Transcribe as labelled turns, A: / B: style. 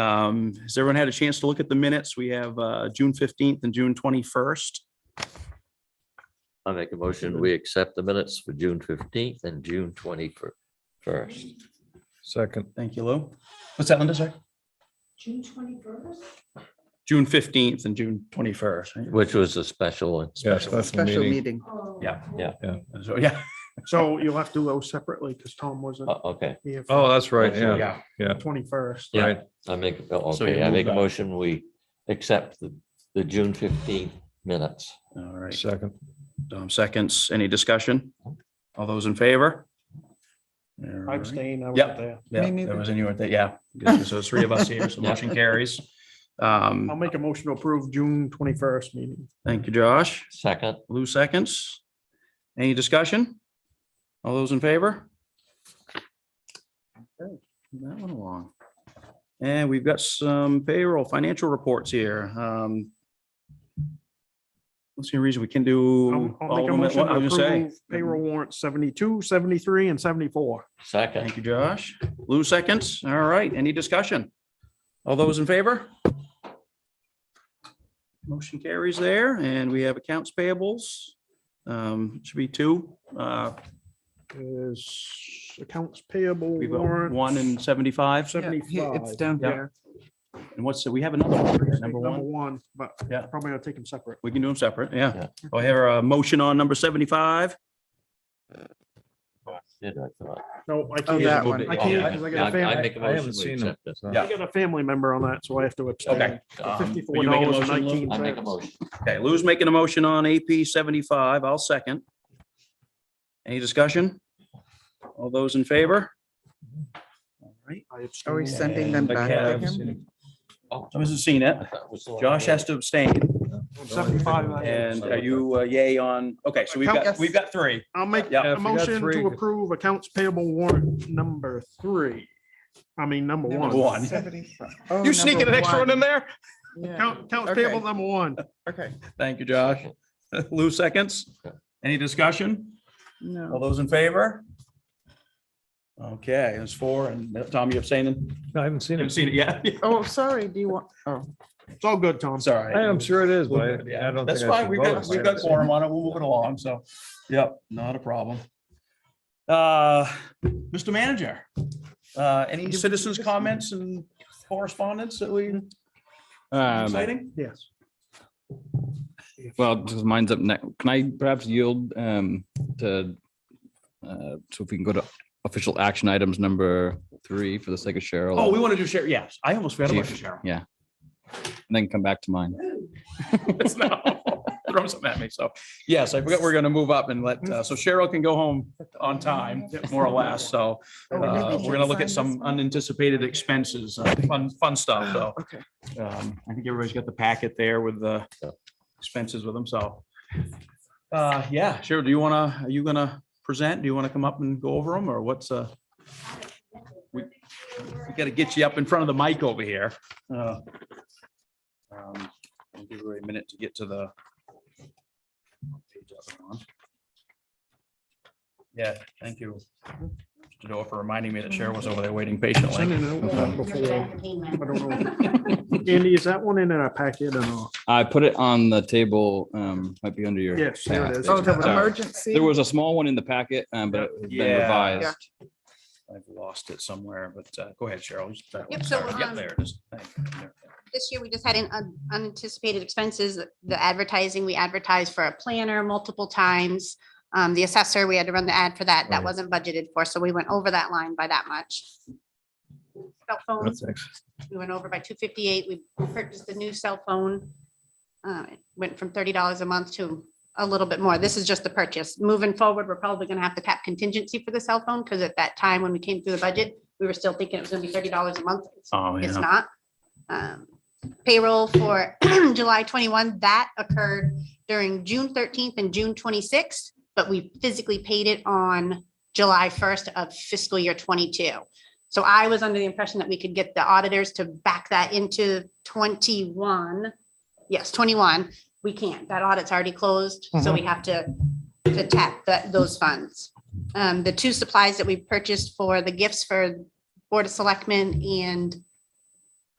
A: Um, Has everyone had a chance to look at the minutes? We have uh, June 15th and June 21st.
B: I make a motion, we accept the minutes for June fifteenth and June twenty first.
C: Second.
A: Thank you, Lou. What's that, Linda? Sorry?
D: June twenty-first?
A: June 15th and June 21st. right?
B: Which was a special one.
C: Yes, that's the
E: Special
C: meeting.
E: meeting.
D: Oh.
A: Yeah,
B: yeah.
A: So, yeah.
F: So you'll have to go separately because Tom wasn't
A: Uh,
B: Oh, Okay,
F: here
C: Oh,
F: for
C: that's right. Yeah,
F: the
C: yeah.
F: twenty-first.
B: Yeah.
C: Right.
B: I make, oh,
A: So you
B: okay, I make a
A: move that.
B: motion, we accept the, the June fifteenth minutes.
A: All right.
C: Second.
A: Dom seconds. Any discussion? All those in favor?
F: I'm staying, I was
A: Yep.
F: there.
A: Yeah,
E: Me
A: there was anyone that, yeah. good. So it's three of us here, so
B: Yeah.
A: motion carries.
F: I'll
A: Um,
F: make a motion to approve June twenty-first meeting.
A: Thank you, Josh.
B: Second,
A: Lou seconds. Any discussion? All those in favor? Okay, move That one along. And we've got some payroll financial reports here. Um, Let's see a reason we can do.
F: I'll- I'll
A: all of
F: make
A: them
F: a
A: at
F: motion
A: once.
F: to
A: I was gonna say.
F: approve Payroll warrant 72, 73, and seventy-four.
B: second,
A: Thank you, Josh. Lou seconds. All right, any discussion? All those in favor? Motion carries there, and we have accounts payables. Um, Should be two. Uh,
F: Is accounts payable
A: We've got
F: warrant.
A: one and seventy-five.
E: Yeah, here- It's
F: 75.
E: down
A: Yeah.
E: here.
A: And what's, the- we have another one, right? number
F: Number
A: one.
F: one, but
A: Yeah.
F: probably I'll take them separate.
A: We can do them separate, yeah.
B: Yeah.
A: Do I have a motion on number seventy-five?
B: did I thought.
F: No, I
E: Oh,
F: can't.
E: that
F: I can't
E: one.
B: Yeah,
F: 'cause I
B: yeah,
F: got a
B: I
F: family,
B: make a
C: I
B: motion,
C: haven't
B: we
C: seen them.
B: accept this.
A: Yeah.
F: I got a family member on that, so I have to abstain.
A: Okay.
B: Um,
F: Fifty-four
A: you making a
F: dollars and
A: motion, Lou?
F: nineteen
B: I make a
F: cents.
B: motion,
A: Okay, Lou's making a motion on AP seventy-five, I'll second. Any discussion? All those in favor? All right.
F: I
E: Are we
F: abstain.
E: sending them
A: And the
E: back to
A: Cavs.
E: him?
B: oh.
A: I wasn't seeing it.
B: I thought it was the one
A: Josh
B: I
A: has to abstain,
F: Seventy-five. I
A: and are you uh, yay on, okay, so we've got,
E: Yes.
A: we've got three.
F: I'll make
A: Yeah.
C: Yeah,
F: a
C: if you got
F: motion
C: three,
F: to approve accounts payable warrant number three. I mean, number
E: Number
F: one.
A: One.
E: 75. Oh,
F: You sneaking
E: number
F: an extra one in there?
E: Yeah,
F: Count, count
E: Okay.
F: table number one.
E: okay.
A: Thank you, Josh. Lou seconds. Any discussion? All
E: No,
A: those in favor? Okay, there's four, and Tom, you abstaining?
C: I haven't seen them.
A: Haven't seen it yet.
E: oh, sorry, do you want, oh,
F: It's all good, Tom.
A: I'm sorry.
C: I am sure it is, but I I don't.
A: That's
C: think I
A: fine.
C: should
A: We've
C: vote
A: got,
C: if I
A: we've got
C: haven't seen
A: quorum on it. We'll move it along. So, yep, not a problem. Uh, Mr. Manager, uh, any citizens' comments and correspondence that we
G: Um,
A: exciting?
F: Yes.
G: well, just mine's up next. Can I perhaps yield um to uh so if we can go to official action items number three for the sake of Cheryl?
A: Oh, we want to do Cheryl. Yes, I almost forgot about
G: Chief.
A: Cheryl.
G: And then come back to mine.
A: It's now throwing something at me. So, yes, I forgot we're going to move up and let, uh, so Cheryl can go home on time, more or less. So uh,
E: Oh, maybe
A: we're
E: she'll
A: going to look
E: sign
A: at
E: this
A: some
E: one.
A: unanticipated expenses, uh, fun, fun stuff. So
E: okay.
A: Um, I think everybody's got the packet there with the
B: Yeah.
A: expenses with them, so. Uh, yeah, sure. Do you wanna, are you gonna present? Do you wanna come up and go over them or what's, uh? We we gotta get you up in front of the mic over here. Uh, um, I'll Give her a minute to get to the. Yeah, thank you. Mr. Door for reminding me that Cheryl was over there waiting
F: Send
A: patiently.
F: it out
G: Okay.
F: before- I
D: Payment.
F: don't know. Andy, is that one in our packet or not?
G: I put it on the table, um, might be under your.
F: Yes, there it is.
E: Oh,
G: Yeah.
E: the
G: Sorry.
E: emergency.
G: There was a small one in the packet, um, but it has been
A: Yeah.
G: revised.
A: I've lost it somewhere, but uh, go ahead, Cheryl. you start.
H: Yep,
A: I'm
H: so,
A: sorry. Yep,
H: um,
A: there it is. Thank you. There.
H: This year, we just had an un- unanticipated expenses, the advertising, we advertised for a planner multiple times. Um, The assessor, we had to run the ad for that. That
C: Right.
H: wasn't budgeted for, so we went over that line by that much. Cell
C: them.
H: phones,
C: That's ex-
H: we went over by two fifty-eight. We purchased a new cell phone. Uh, It Went from thirty dollars a month to a little bit more. This is just the purchase. Moving forward, we're probably gonna have to tap contingency for the cell phone, because at that time, when we came through the budget, we were still thinking it was gonna be thirty dollars a month. It's
A: Oh,
H: it's
A: yeah.
H: not. Um, Payroll for July 21, that occurred during June 13th and June 26th, but we physically paid it on July 1st of fiscal year 22. So I was under the impression that we could get the auditors to back that into 21. Yes, 21. We can't. That audit's already closed, so
A: Mm-hmm.
H: we have to to tap that, those funds. Um, the two supplies that we purchased for the gifts for Board of Selectmen and